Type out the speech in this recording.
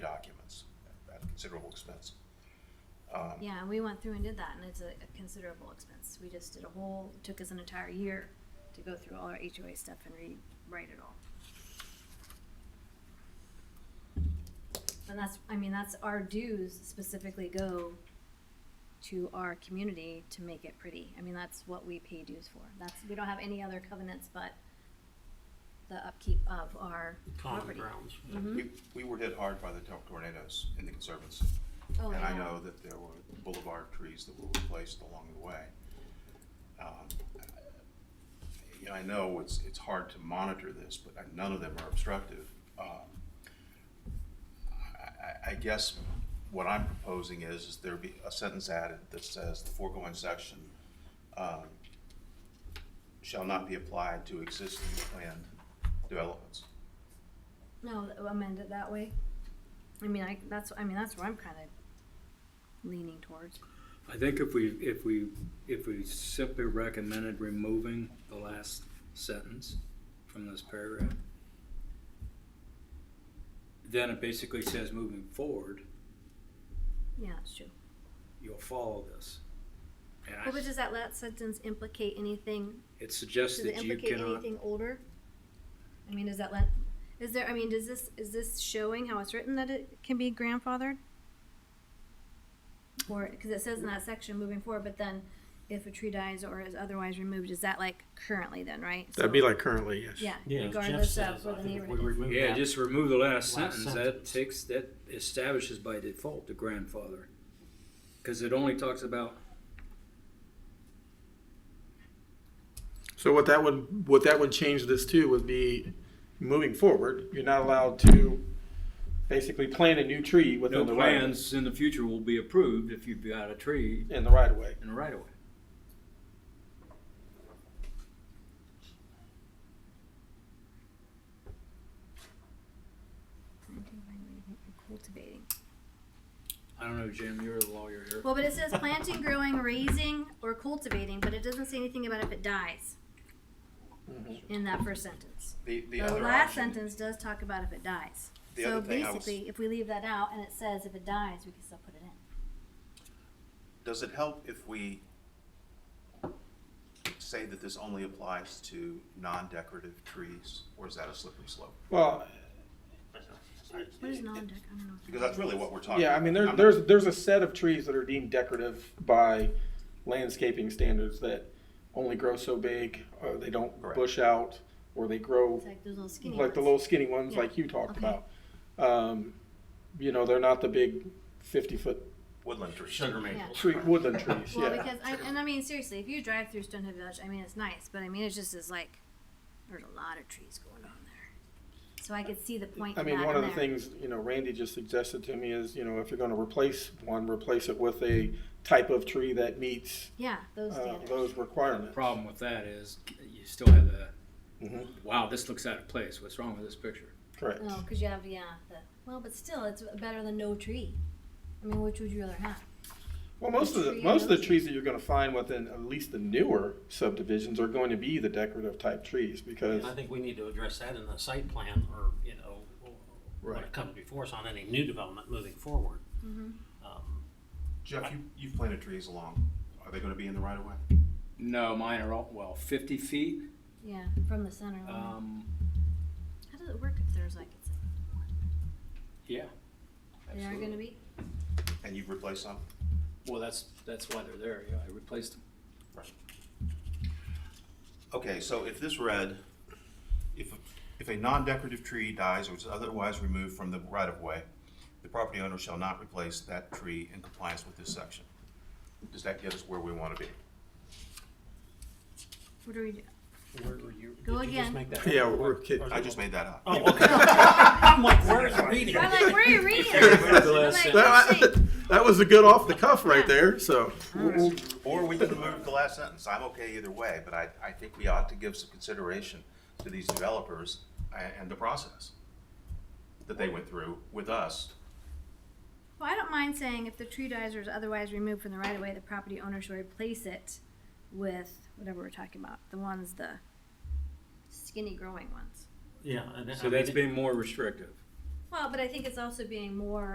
considerable expense. Um, Yeah, and we went through and did that, and it's a, a considerable expense. We just did a whole, took us an entire year to go through all our HOA stuff and rewrite it all. And that's, I mean, that's our dues specifically go to our community to make it pretty. I mean, that's what we pay dues for. That's, we don't have any other covenants but the upkeep of our common property. grounds. Mm-hmm. We, we were hit hard by the tor- tornadoes in the Conservancy. Oh, And I yeah. know that there were boulevard trees that were replaced along the way. Um, You know, I know it's, it's hard to monitor this, but I- none of them are obstructive. Um, I, I- I guess what I'm proposing is, is there be a sentence added that says the foregoing section um, shall not be applied to existing planned developments. No, th- amend it that way. I mean, I, that's, I mean, that's where I'm kind of leaning towards. I think if we, if we, if we simply recommended removing the last sentence from this paragraph, then it basically says moving forward, Yeah, that's true. you'll follow this. And Well, but I, does that last sentence implicate anything? it suggests Does it that you implicate cannot, anything older? I mean, does that let, is there, I mean, does this, is this showing how it's written that it can be grandfathered? Or, because it says in that section moving forward, but then if a tree dies or is otherwise removed, is that like currently then, right? That'd So- be like currently, yes. Yeah, Yeah, as Jeff regardless says, of I where the think if we neighborhood is. remove yeah, that- just remove the last Last sentence, that sentence. takes, that establishes by default the grandfather. Cause it only talks about So what that would, what that would change this to would be, moving forward, you're not allowed to basically plant a new tree no within the right, plans in the future will be approved if you've got a tree in the right of way. in the right of way. Cultivating. I don't know, Jim, you're the lawyer here. Well, but it says planting, growing, raising, or cultivating, but it doesn't say anything about if it dies in that first sentence. The, Mm-hmm. the The other last option- sentence does talk about if it dies. The So other thing I was- basically, if we leave that out and it says if it dies, we can still put it in. Does it help if we say that this only applies to non-decorative trees, or is that a slippery slope? Well, What is non-dec, I don't know. what that Because that's really what we're talking about. yeah, I mean, I'm there, there's, there's a set of trees that are deemed decorative by landscaping standards that only grow so big, or they don't Correct. bush out, or they grow It's like those little skinny like the ones. little skinny ones Yeah. like you talked Okay. about. Um, you know, they're not the big fifty foot Woodland trees. maples. tree, woodland trees, Well, yeah. because I, and I mean, seriously, if you drive through Stonehill Village, I mean, it's nice, but I mean, it's just is like, there's a lot of trees going on there. So I could see the point I in that mean, in one of the there. things, you know, Randy just suggested to me is, you know, if you're gonna replace one, replace it with a type of tree that meets, Yeah, those uh, standards. those requirements. Problem with that is you still have the, Mhm. wow, this looks out of place. What's wrong with this picture? Correct. No, because you have yeah. The, well, but still, it's better than no tree. I mean, which would you rather have? Well, most of the, tree most of the knows. trees that you're gonna find within at least the newer subdivisions are going to be the decorative type trees because, I think we need to address that in the site plan or, you know, when Right. it comes before us on any new development moving forward. Mm-hmm. Um, Jeff, you, you've planted trees along, are they gonna be in the right of way? No, mine are all, well, fifty feet. Yeah, from the center line. Um, How does it work if there's like it's they yeah. are absolutely. going to be? And you've replaced some? Well, that's, that's why they're there. Yeah, I replaced them. Okay, so if this read, if, if a non-decorative tree dies or is otherwise removed from the right of way, the property owner shall not replace that tree in compliance with this section. Does that get us where we wanna be? What do we do? where were you- Go did you just again. make that- yeah, we're kidding. I just made that up. Oh, okay. I'm like, where is the reading? I'm like, where are you reading? That's the I'm last like, That, "Shit." that was a good off the cuff right there, so. Or we can remove the last sentence. I'm okay either way, but I, I think we ought to give some consideration to these developers and, and the process that they went through with us. well, I don't mind saying if the tree dies or is otherwise removed from the right of way, the property owner shall replace it with whatever we're talking about. The ones the skinny growing ones. Yeah. and I So that's mean, being more restrictive. Well, but I think it's also being more